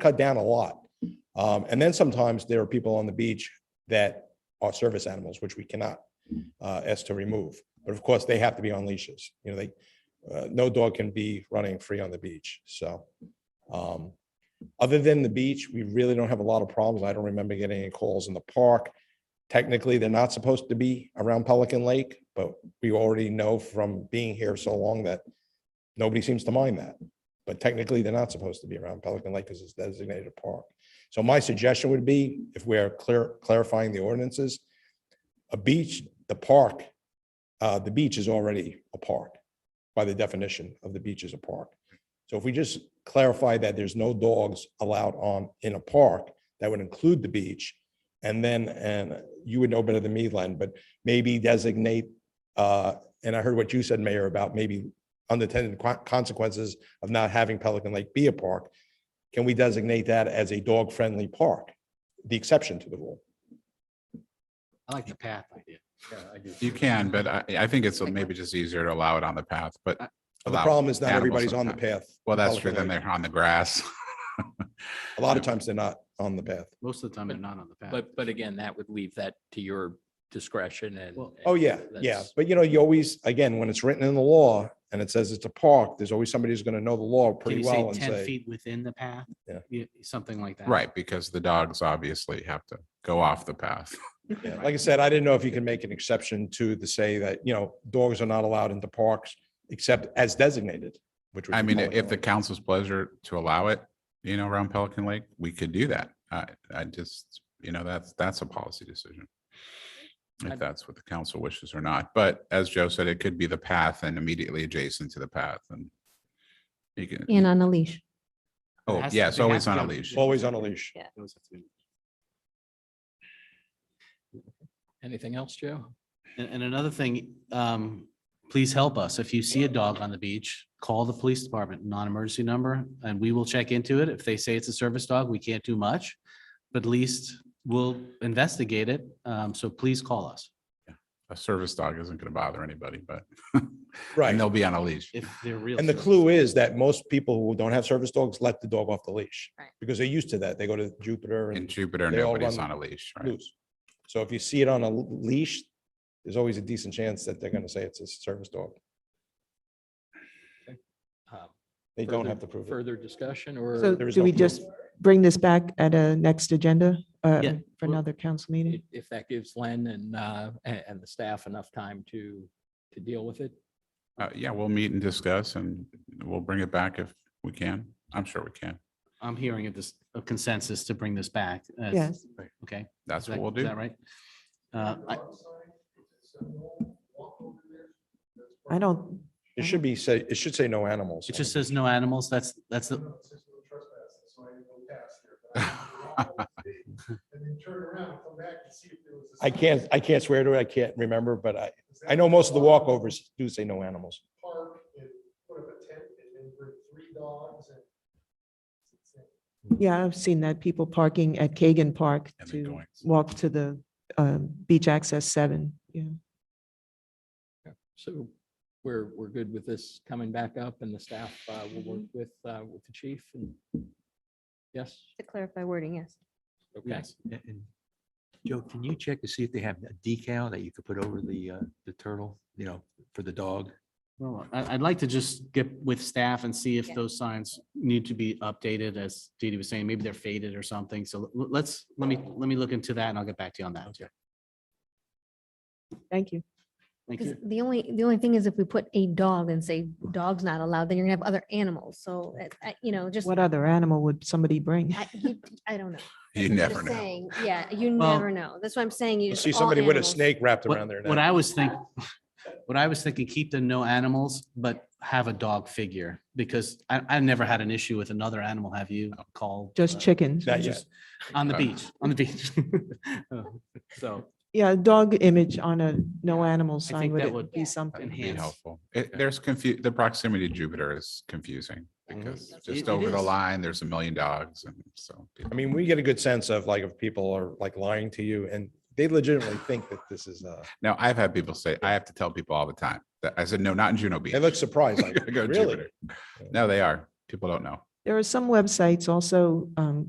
cut down a lot. Um, and then sometimes there are people on the beach that are service animals, which we cannot uh, ask to remove. But of course, they have to be on leashes. You know, they, uh, no dog can be running free on the beach. So, um, other than the beach, we really don't have a lot of problems. I don't remember getting any calls in the park. Technically, they're not supposed to be around Pelican Lake, but we already know from being here so long that nobody seems to mind that. But technically, they're not supposed to be around Pelican Lake because it's designated a park. So my suggestion would be, if we're clear, clarifying the ordinances, a beach, the park, uh, the beach is already a park by the definition of the beach is a park. So if we just clarify that there's no dogs allowed on, in a park, that would include the beach. And then, and you would know better than me, Len, but maybe designate, uh, and I heard what you said, Mayor, about maybe unintended co- consequences of not having Pelican Lake be a park. Can we designate that as a dog-friendly park? The exception to the rule. I like the path idea. You can, but I, I think it's maybe just easier to allow it on the path, but. The allow problem is not animals everybody's on the sometimes. path. Well, that's Pelican true. Then Lake. they're on the grass. A lot of times they're not on the path. Most of the time, they're not on the path. But, but again, that would leave that to your discretion and. Well- Oh, yeah, yeah. That's- But you know, you always, again, when it's written in the law and it says it's a park, there's always somebody who's going to know the law Can pretty you well say and ten say, feet within the path? Yeah. Something like that. Right, because the dogs obviously have to go off the path. Yeah, like I said, I didn't know if you can make an exception to the say that, you know, dogs are not allowed into parks except as designated, which. would I be mean, Pelican if the Lake. council's pleasure to allow it, you know, around Pelican Lake, we could do that. I, I just, you know, that's, that's a policy decision. I'd- If that's what the council wishes or not. But as Joe said, it could be the path and immediately adjacent to the path and you And can, on a leash. oh, has to- yeah, it's they always have on to a be- leash. Always on a leash. Those have to be- Anything else, Joe? And, and another thing, um, please help us. If you see a dog on the beach, call the police department, non-emergency number, and we will check into it. If they say it's a service dog, we can't do much. But at least we'll investigate it. Um, so please call us. A service dog isn't going to bother anybody, but Right. and they'll be on a leash. If they're real. And the service clue is that most people who don't have service dogs let the dog off the leash. Right. Because they're used to that. They go to Jupiter In and Jupiter, they all nobody's run on a leash, right? loose. So if you see it on a leash, there's always a decent chance that they're going to say it's a service dog. Um, They don't further- have to prove it. Further discussion or? So there is do no we proof. just bring this back at a next agenda uh, Yeah, for well, another council meeting? if- If that gives Len and, uh, and, and the staff enough time to, to deal with it. Uh, yeah, we'll meet and discuss and we'll bring it back if we can. I'm sure we can. I'm hearing of this a consensus to bring this back. as- Yes. Okay. That's Is that- what we'll Is do. that right? Uh, I, I don't, It should be say, it should say no animals. it on just it. says no animals. That's, that's the, I can't, I can't swear to it. I can't remember, but I, I know most of the walkovers do say no animals. park and put up a tent and then bring three dogs and. yeah, I've seen that people parking at Kagan Park And then to going. walk to the um, beach access seven. Yeah. So we're, we're good with this coming back up and the staff, uh, will work with, uh, with the chief and. Yes, To clarify wording, yes. okay. yes. And- and Joe, can you check to see if they have a decal that you could put over the, uh, the turtle, you know, for the dog? Well, I, I'd like to just get with staff and see if Yeah. those signs need to be updated, as Didi was saying, maybe they're faded or something. So l- let's, let me, let me look into that and I'll get back to you on that. too. Thank you. Thank 'Cause you. the only, the only thing is if we put a dog and say dog's not allowed, then you're gonna have other animals. So, it- I- you know, just, What other animal would somebody bring? I, you- I don't know. You I'm never just know. saying, Yeah, you Well- never know. That's what I'm saying. You You just see all somebody with a animals. snake wrapped What around their what neck. I was thinking, what I was thinking, keep the no animals, but have a dog figure. Because I, I've never had an issue with another animal, have you, called? Just uh, chickens. Not yet. Just on the Uh, beach, on the beach. So Yeah, a dog image on a no animal I think sign would that it would be something. That'd Be Enhance. helpful. It, there's confu, the proximity to Jupiter is confusing because It- just it over the is. line, there's a million dogs and so. I mean, we get a good sense of like, if people are like lying to you and they legitimately think that this is, uh, Now, I've had people say, I have to tell people all the time that I said, no, not in Juno Beach. they look surprised, like, I go really? Jupiter. No, they are. People don't know. There are some websites also, um,